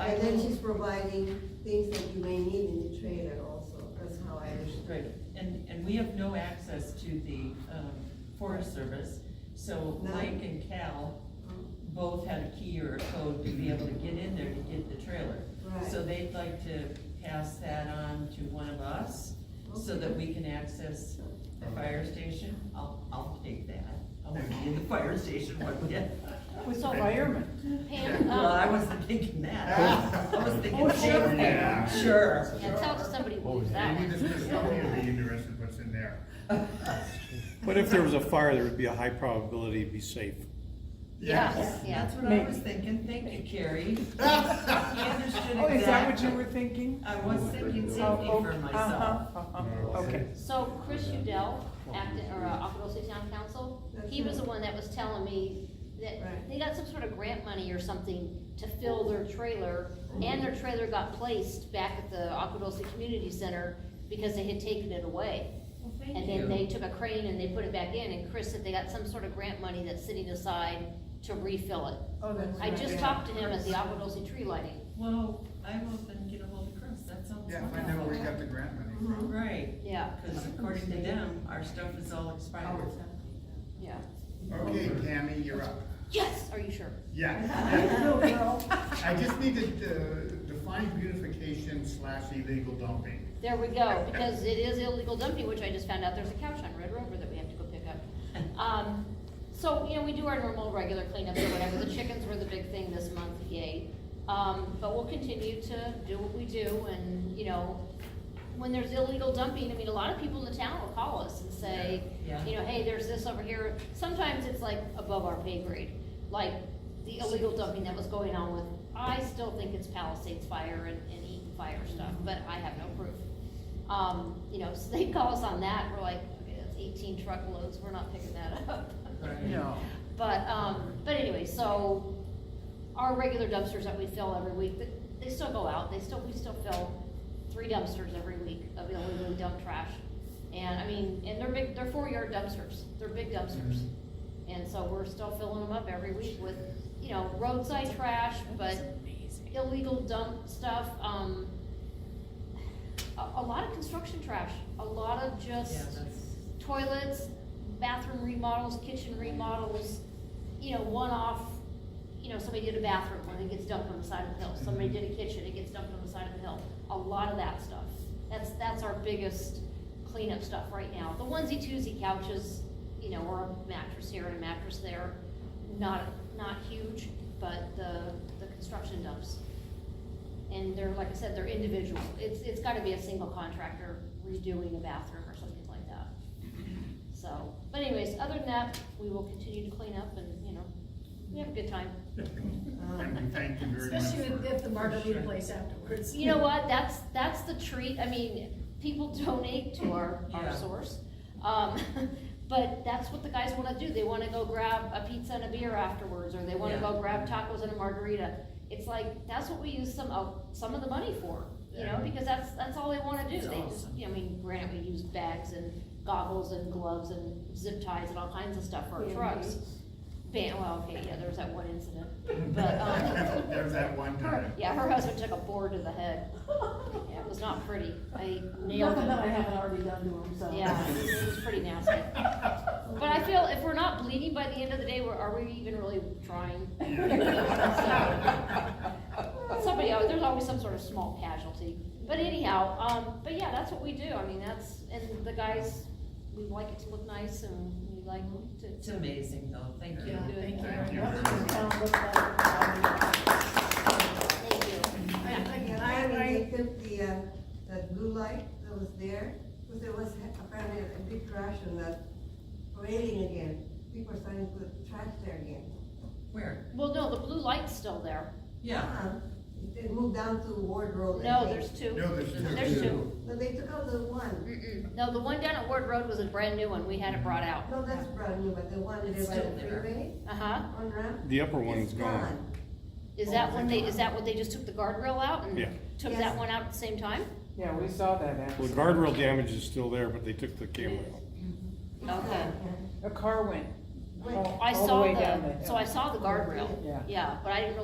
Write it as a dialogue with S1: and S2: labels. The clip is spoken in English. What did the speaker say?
S1: And then she's providing things that you may need in the trailer also, that's how I understand.
S2: Right, and, and we have no access to the, um, Forest Service, so
S1: No.
S2: Mike and Cal
S1: Oh,
S2: both had a key or a code to be able to get in there to get the trailer.
S1: Right.
S2: So they'd like to pass that on to one of us, so that we can access the fire station. I'll, I'll take that, I'll be in the fire station one day.
S3: With all firemen.
S4: Pam,
S2: Well, I
S4: um,
S2: wasn't thinking that, I was thinking.
S3: Oh, sure.
S5: Yeah.
S2: Sure.
S4: yeah, tell somebody who believes that
S5: Maybe
S4: one.
S5: this is somebody would be interested what's in there.
S6: But if there was a fire, there would be a high probability it'd be safe.
S4: Yes, yeah.
S2: That's what I was thinking, thank you, Carrie. You understood
S3: Oh, is that what you
S2: exactly.
S3: were thinking?
S2: I was thinking
S3: Oh,
S2: safety
S3: oh,
S2: for myself.
S3: uh-huh, uh-huh, Okay.
S4: So Chris Udell, acting, or uh, Alphaville City Town Council, he was the one that was telling me that
S1: Right.
S4: they got some sort of grant money or something to fill their trailer, and their trailer got placed back at the Alphaville City Community Center because they had taken it away. And
S2: you.
S4: then they took a crane and they put it back in, and Chris said they got some sort of grant money that's sitting aside to refill it.
S1: Oh, that's
S4: I
S1: right,
S4: just
S1: yeah.
S4: talked to him at the Alphaville Tree Lighting.
S2: Well, I will then get a hold of Chris, that sounds
S5: Yeah, find out where we
S2: wonderful.
S5: got the grant money from.
S2: Right,
S4: Yeah,
S2: because according to them, our stuff is all expired.
S1: Oh.
S4: yeah.
S5: Okay, Tammy, you're up.
S4: Yes, are you sure?
S5: Yeah. I just need to uh, define beautification slash illegal dumping.
S4: There we go, because it is illegal dumping, which I just found out, there's a couch on Red Rover that we have to go pick up. Um, so, you know, we do our normal, regular cleanups or whatever, the chickens were the big thing this month, yay. Um, but we'll continue to do what we do, and, you know, when there's illegal dumping, I mean, a lot of people in the town will call us and say,
S2: Yeah.
S4: you know, hey, there's this over here, sometimes it's like above our pay grade, like the illegal dumping that was going on with, I still think it's Palisades fire and, and Eaton fire stuff, but I have no proof. Um, you know, so they call us on that, we're like, okay, that's eighteen truckloads, we're not picking that up.
S2: Right.
S3: No.
S4: But, um, but anyway, so our regular dumpsters that we fill every week, th- they still go out, they still, we still fill three dumpsters every week of illegally dumped trash. And I mean, and they're big, they're four yard dumpsters, they're big dumpsters.
S2: Mm-hmm.
S4: And so we're still filling them up every week with, you know, roadside trash, but illegal dump stuff, um, a, a lot of construction trash, a lot of just
S2: Yeah, that's,
S4: toilets, bathroom remodels, kitchen remodels, you know, one-off, you know, somebody did a bathroom, and it gets dumped on the side of the hill, somebody did a kitchen, it gets dumped on the side of the hill, a lot of that stuff. That's, that's our biggest cleanup stuff right now, the onesie twosie couches, you know, or a mattress here and a mattress there, not, not huge, but the, the construction dumps. And they're, like I said, they're individual, it's, it's gotta be a single contractor redoing a bathroom or something like that. So, but anyways, other than that, we will continue to clean up and, you know, we have a good time. Uh-huh.
S5: And we thank you very much
S7: Especially with-
S5: for-
S7: at the margarita place afterwards.
S4: You know what, that's, that's the treat, I mean, people donate to our, our
S2: Yeah.
S4: source. Um, but that's what the guys wanna do, they wanna go grab a pizza and a beer afterwards, or they wanna
S2: Yeah.
S4: go grab tacos and a margarita. It's like, that's what we use some of, some of the money for, you know,
S2: Yeah.
S4: because that's, that's all they wanna do.
S2: It's
S4: They just,
S2: awesome.
S4: you know, I mean, granted, we use bags and goggles and gloves and zip ties and all kinds of stuff for our trucks. Ban, well, okay, yeah, there was that one incident, but, um,
S5: There was that one time.
S4: yeah, her husband took a board to the head. Yeah, It was not pretty. I nailed
S7: Nothing that I
S4: it.
S7: haven't already done to him, so.
S4: Yeah, it was pretty nasty. But I feel if we're not bleeding by the end of the day, we're, are we even really trying? Somebody, al- there's always some sort of small casualty. But anyhow, um, but yeah, that's what we do. I mean, that's, and the guys, we like it to look nice and we like
S2: it's
S4: to,
S2: amazing though, thank you.
S7: Yeah, thank
S5: Thank
S7: you very
S5: you
S7: much.
S5: very much.
S7: Um, look at it.
S4: thank you.
S1: And I mean, they took the, uh, that blue light that was there, because there was apparently a big crash on that railing again. People are starting to put trash there again.
S2: Where?
S4: Well, no, the blue light's still there.
S2: Yeah,
S1: Uh-uh. They moved down to Ward Road. I
S4: No,
S1: think.
S4: there's two.
S5: No, there's two.
S4: There's two.
S1: No, they took out the one.
S4: Mm-mm. No, the one down at Ward Road was a brand new one. We had it brought out.
S1: No, that's brand new, but the one
S2: It's
S1: there by
S2: still
S1: the
S2: there.
S1: freeway
S4: Uh-huh.
S1: on ramp.
S6: The upper one
S1: it's
S6: is gone.
S4: Is that when they, is that what they just took the guardrail out and
S6: Yeah.
S4: took
S1: Yes.
S4: that one out at the same time?
S3: Yeah, we saw that
S6: Well,
S3: accident.
S6: guardrail damage is still there, but they took the camera out.
S4: Okay.
S3: A car went all
S4: I
S3: all the
S4: saw
S3: way down the
S4: the,
S3: hill.
S4: so I saw the guardrail,
S3: Yeah.
S4: yeah, but I didn't really